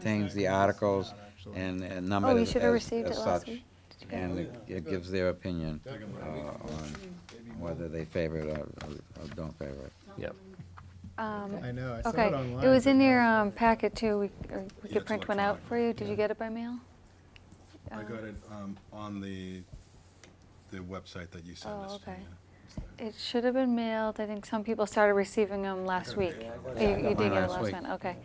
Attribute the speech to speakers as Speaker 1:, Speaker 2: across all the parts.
Speaker 1: things, the articles, and and numbered
Speaker 2: Oh, you
Speaker 1: as
Speaker 2: should have
Speaker 1: as-
Speaker 2: received
Speaker 1: as
Speaker 2: it last
Speaker 1: such.
Speaker 2: week.
Speaker 1: And it- it gives their opinion uh, on whether they favor it or or don't favor it.
Speaker 3: Yep.
Speaker 2: Um,
Speaker 4: I know, I saw
Speaker 2: Okay,
Speaker 4: it online.
Speaker 2: it was in
Speaker 4: but
Speaker 2: your
Speaker 4: now-
Speaker 2: um, packet too, we, or we
Speaker 5: Yeah,
Speaker 2: could
Speaker 5: it's
Speaker 2: print one out
Speaker 5: electronic.
Speaker 2: for you, did
Speaker 5: Yeah.
Speaker 2: you get it by mail?
Speaker 5: I
Speaker 2: Um,
Speaker 5: got it um, on the, the website that you sent
Speaker 2: Oh,
Speaker 5: us to.
Speaker 2: okay.
Speaker 5: yeah. It's there.
Speaker 2: Um, It should have been mailed, I think some people started receiving them last week. Oh, You
Speaker 1: I got
Speaker 2: you did
Speaker 1: mine
Speaker 2: get it
Speaker 1: last
Speaker 2: last
Speaker 1: week.
Speaker 2: one, okay.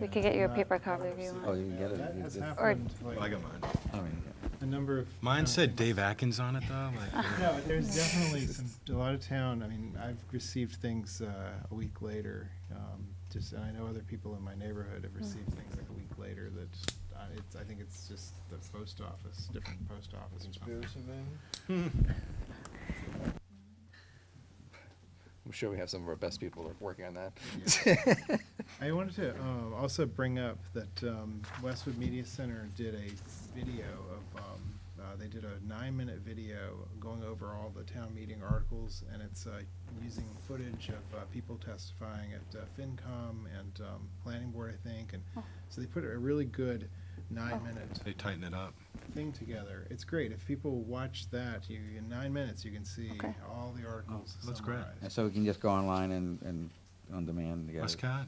Speaker 2: We
Speaker 4: Yeah,
Speaker 2: could get you a
Speaker 4: not-
Speaker 2: paper
Speaker 4: not
Speaker 2: copy if you
Speaker 4: received.
Speaker 1: Oh,
Speaker 2: want.
Speaker 1: you can get it.
Speaker 4: That
Speaker 1: You
Speaker 4: has
Speaker 1: did-
Speaker 4: happened,
Speaker 5: Well, I
Speaker 4: like,
Speaker 5: got mine.
Speaker 1: I mean,
Speaker 4: a number of.
Speaker 5: Mine
Speaker 4: towns
Speaker 5: said
Speaker 4: in-
Speaker 5: Dave Atkins on it, though. like, you
Speaker 4: No,
Speaker 5: know.
Speaker 4: but there's definitely some, a lot of town, I mean, I've received things uh, a week later. um, Just, and I know other people in my neighborhood
Speaker 2: Mm-hmm.
Speaker 4: have received things like a week later that, uh, it's, I think it's just the post office, different post office. or something.
Speaker 3: I'm sure we have some of our best people working on that.
Speaker 4: I wanted to um, also bring up that um, Westwood Media Center did a video of, um, uh, they did a nine-minute video going over all the town meeting articles, and it's uh, using footage of uh, people testifying at uh, FinCom and um, Planning Board, I think, and so they put a really good nine-minute
Speaker 5: They tighten it up.
Speaker 4: thing together. It's great. If people watch that, you, in nine minutes, you can see
Speaker 2: Okay.
Speaker 4: all the articles
Speaker 5: Oh, that's great.
Speaker 4: summarized.
Speaker 1: And so we can just go online and, and on demand. get it.
Speaker 5: Westcott?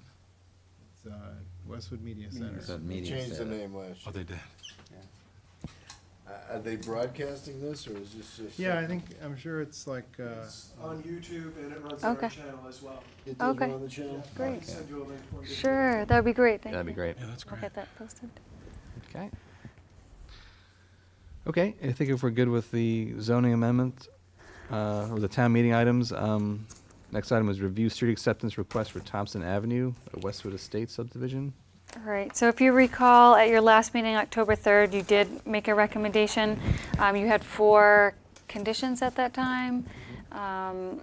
Speaker 4: It's uh, Westwood Media Center.
Speaker 1: It's a
Speaker 6: They
Speaker 1: media
Speaker 6: changed the
Speaker 1: setup.
Speaker 6: name last
Speaker 5: Oh, they
Speaker 6: year.
Speaker 5: did.
Speaker 6: Uh, Are they broadcasting this, or is this just?
Speaker 4: Yeah, I think, I'm sure it's like, uh,
Speaker 7: It's on YouTube and it runs on our
Speaker 2: Okay.
Speaker 7: channel as well.
Speaker 6: It does
Speaker 2: Okay.
Speaker 6: run on the channel?
Speaker 2: Great.
Speaker 7: I'll Send you a link for you.
Speaker 2: Sure, that'd be great, thank you.
Speaker 3: That'd be great.
Speaker 5: Yeah, that's
Speaker 2: I'll
Speaker 5: great.
Speaker 2: get that posted.
Speaker 3: Okay. Okay, I think if we're good with the zoning amendment, uh, or the town meeting items, um, next item is review street acceptance request for Thompson Avenue, a Westwood Estate subdivision.
Speaker 2: All right, so if you recall, at your last meeting, October 3rd, you did make a recommendation. Um, You had four conditions at that time. Um,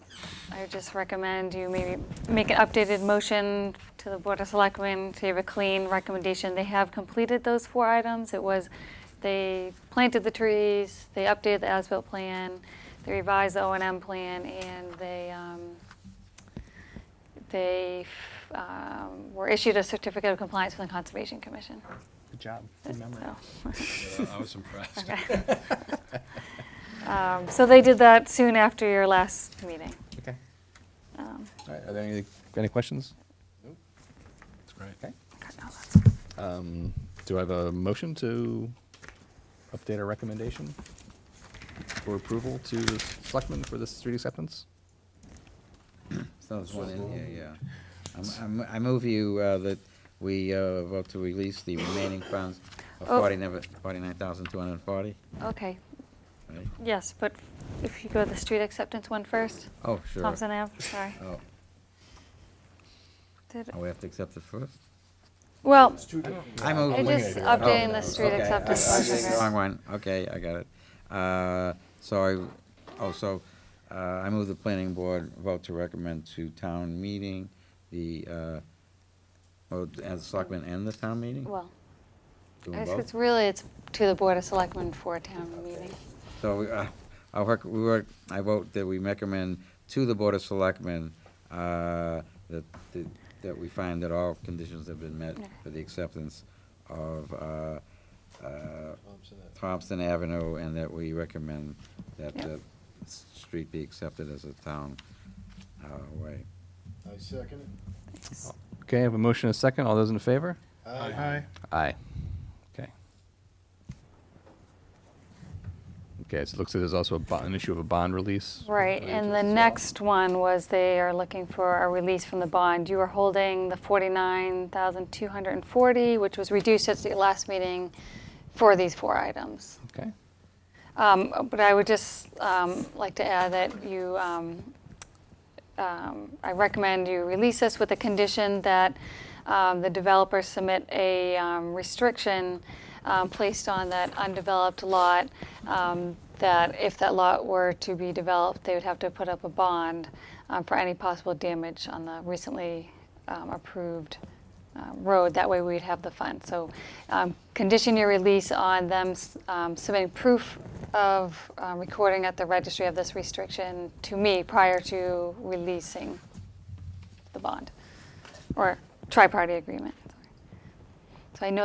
Speaker 2: I would just recommend you maybe make an updated motion to the Board of Selectmen to have a clean recommendation. They have completed those four items. It was, they planted the trees, they updated the as-built plan, they revised the O and M plan, and they um, they um, were issued a certificate of compliance from the Conservation Commission.
Speaker 3: Good job.
Speaker 2: So-
Speaker 5: Yeah, I was impressed.
Speaker 2: Um, So they did that soon after your last meeting.
Speaker 3: Okay.
Speaker 2: Um,
Speaker 3: All right, are there any, any questions?
Speaker 5: It's great.
Speaker 3: Okay.
Speaker 2: okay, no, that's-
Speaker 3: Um, do I have a motion to update our recommendation for approval to the selectmen for this street acceptance?
Speaker 1: So there's one in here, yeah. I'm- I'm- I move you uh, that we uh, vote to release the remaining funds of
Speaker 2: Oh.
Speaker 1: 49,240.
Speaker 2: Okay,
Speaker 1: right?
Speaker 2: yes, but if you go to the street acceptance one first,
Speaker 1: Oh, sure.
Speaker 2: Thompson Ave, sorry.
Speaker 1: Oh,
Speaker 2: Did-
Speaker 1: oh, we have to accept it first?
Speaker 2: Well,
Speaker 6: It's two different.
Speaker 1: I move.
Speaker 2: I just updating the street
Speaker 1: Oh, Okay, I-
Speaker 2: acceptance.
Speaker 1: I- I
Speaker 2: one,
Speaker 1: did the
Speaker 2: okay.
Speaker 1: Wrong one, okay, I got it. Uh, So I, oh, so uh, I move the planning board vote to recommend to town meeting the, uh, oh, as selectmen and the town meeting?
Speaker 2: Well,
Speaker 1: Do them
Speaker 2: I
Speaker 1: both?
Speaker 2: think it's really, it's to the Board of Selectmen for a town meeting.
Speaker 1: So we, uh, I work, we work, I vote that we recommend to the Board of Selectmen, uh, that, that- that we find that all conditions have been met
Speaker 2: Okay.
Speaker 1: for the acceptance of, uh, uh,
Speaker 6: Thompson Ave.
Speaker 1: Thompson Avenue, and that we recommend that
Speaker 2: Yeah.
Speaker 1: the s- street be accepted as a town, uh, way.
Speaker 6: I second it.
Speaker 2: Thanks.
Speaker 3: Okay, I have a motion and a second. All those in favor?
Speaker 4: hi.
Speaker 3: Aye. Okay. Okay, so it looks like there's also a bo- an issue of a bond release.
Speaker 2: Right,
Speaker 3: related to
Speaker 2: and the
Speaker 3: this as well.
Speaker 2: next one was they are looking for a release from the bond. You were holding the 49,240, which was reduced at the last meeting for these four items.
Speaker 3: Okay,
Speaker 2: Um, But I would just um, like to add that you, um, um, I recommend you release this with the condition that um, the developer submit a um, restriction um, placed on that undeveloped lot, um, that if that lot were to be developed, they would have to put up a bond um, for any possible damage on the recently um, approved uh, road. That way we'd have the fund. So um, condition your release on them s- um, submitting proof of um, recording at the registry of this restriction to me prior to releasing the bond or tri-party agreement. sorry. So I know